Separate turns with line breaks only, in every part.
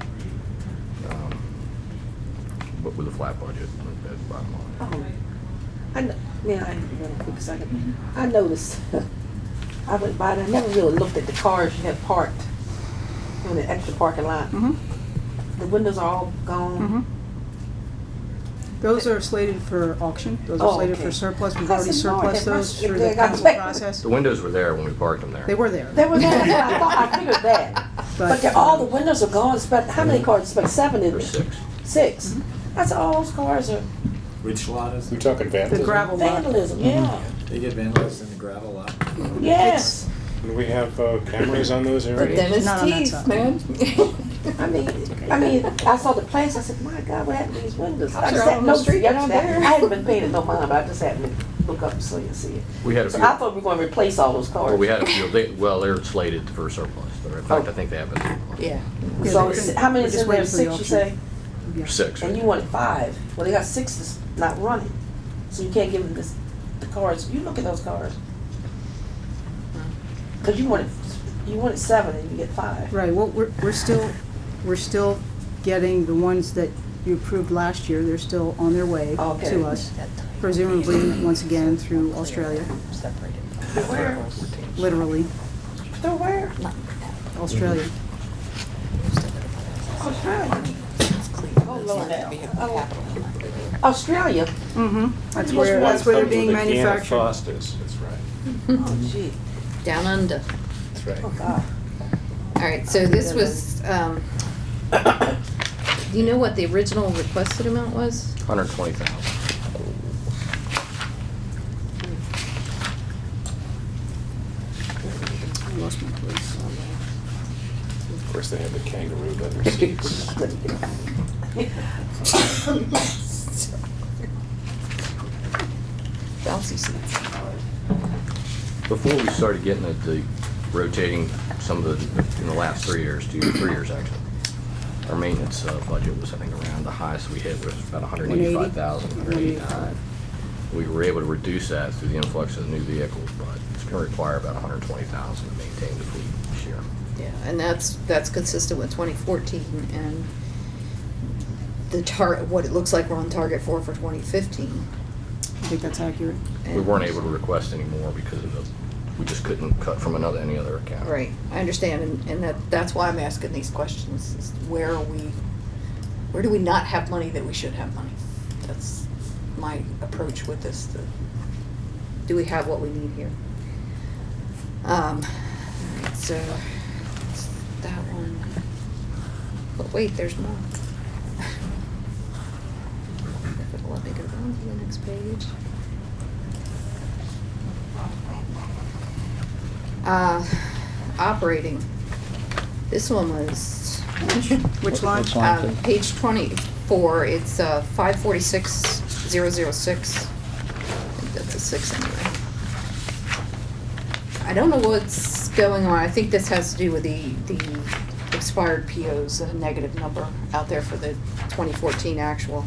up Um, with a flat budget, that's bottom line.
Oh, I, kn- now, I ain't gonna quick second. I noticed, I went by, and I never really looked at the cars you had parked in the extra parking lot.
Mhm,
The windows are all gone.
mhm. Those are slated for auction, those
Oh,
are slated
okay.
for surplus, we've
I
already
said, Lord,
surplused
if I-
those
if
through
they
the
got
council
back-
processed.
The windows were there when we parked them there.
They were there,
They were there, I thought, I figured that. But
but,
they're, all the windows are gone, it's about, how many cars, it's about seven in
Or
there?
six.
Six. That's all those cars are
Which lot is
We're
it?
talking vandalism.
The gravel. A lot.
vandalism, yeah,
They get vandalized in the gravel lot.
Mm-hmm.
yes.
And we have uh, cameras on those
But
areas.
then
Not
it's
on that
teeth,
side.
man.
I mean, I mean, I saw the plants, I said, my God, what happened to these windows? I
Cops are
just
out
had
on
no,
the street
I
down
just had-
there.
I hadn't been paying it no mind, but I just happened to look up and see and see it.
We had a
So
few,
I thought we were gonna replace all those cars.
well, we had a few, they, well, they're slated for surplus, They're- in
Oh.
fact, I think they have been surplus.
Yeah.
So, it's- how many is
Just
in there,
waiting for the
six you
auction.
say?
yeah.
Six.
And you wanted five, well, they got six that's not running, so you can't give them this, the cars, you look at those cars. Cause you wanted, you wanted seven and you get five.
Mm-hmm. Right, well, we're, we're still, we're still getting the ones that you approved last year, they're still on their way
Okay.
to us, presumably, once again, through Australia,
Separated.
Where?
literally,
They're where?
Australia.
Australia. Oh, Lord. Oh. Australia?
Mm-hmm, that's
Just
where,
one
that's where they're
Comes with
being
a can of
manufactured.
Foster's. That's right,
Oh, gee,
Down under.
that's right.
oh, God.
All right, so this was, um, you know what the original requested amount was?
Hundred twenty thousand.
I lost my place.
Of course, they have the kangaroo leather seats.
Bouncy seats.
Before we started getting at the rotating some of the, in the last three years, two, three years actually, our maintenance uh, budget was, I think, around, the highest we hit was about 185,000, 185. We were able to reduce that through the influx of new vehicles, but it's going to require about 120,000 to maintain the fleet this year.
Yeah, and that's, that's consistent with twenty fourteen and the tar, what it looks like we're on target for, for twenty fifteen.
I think that's accurate.
We weren't able to request any more because of the, we just couldn't cut from another, any other account.
Right, I understand, and, and that, that's why I'm asking these questions, is where are we, where do we not have money that we should have money? That's my approach with this, the, do we have what we need here? Um, alright, so, it's that one, but wait, there's more. If it'll let me go down to the next page. Uh, operating, this one was.
Which line?
Um, page twenty-four, it's, uh, five forty-six, zero zero six. That's a six anyway. I don't know what's going on, I think this has to do with the, the expired POs, a negative number out there for the twenty fourteen actual.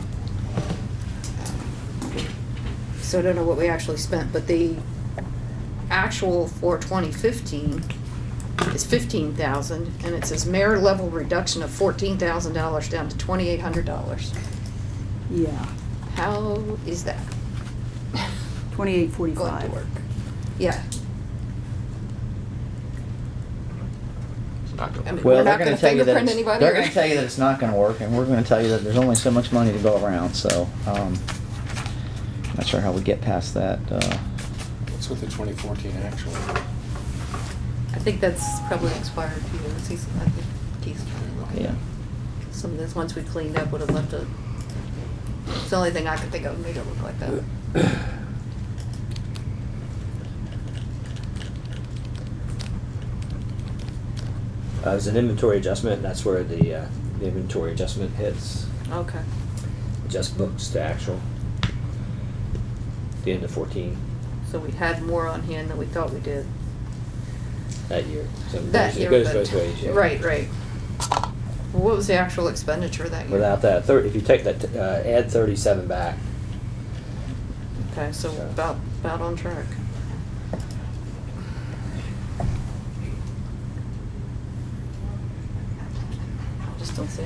So I don't know what we actually spent, but the actual for twenty fifteen is fifteen thousand, and it says merit level reduction of fourteen thousand dollars down to twenty-eight hundred dollars.
Yeah,
How is that
twenty-eight
going to
forty-five.
work? Yeah,
It's not
I
going
mean,
to.
we're
Well,
not
they're
gonna
gonna tell you that,
fingerprint
it's-
anybody,
they're gonna
right?
tell you that it's not gonna work, and we're gonna tell you that there's only so much money to go around, so, um, not sure how we get past that, uh,
What's with the 2014 actual?
I think that's probably expired too, Let's see, I think Keith's trying to look at
yeah.
it. Some of those ones we cleaned up would have left a, it's the only thing I could think of, made it look like that.
Uh, it was an inventory adjustment, that's where the, uh, the inventory adjustment hits,
Okay.
adjust books to actual. The end of fourteen
So we had more on hand than we thought we did.
that year, so it
That
goes,
year,
it goes
but-
both ways, yeah.
Right, right. Well, What was the actual expenditure that year?
Without that, thir- if you take that, uh, add thirty-seven back,
Okay, so
So-
about, about on track. I just don't see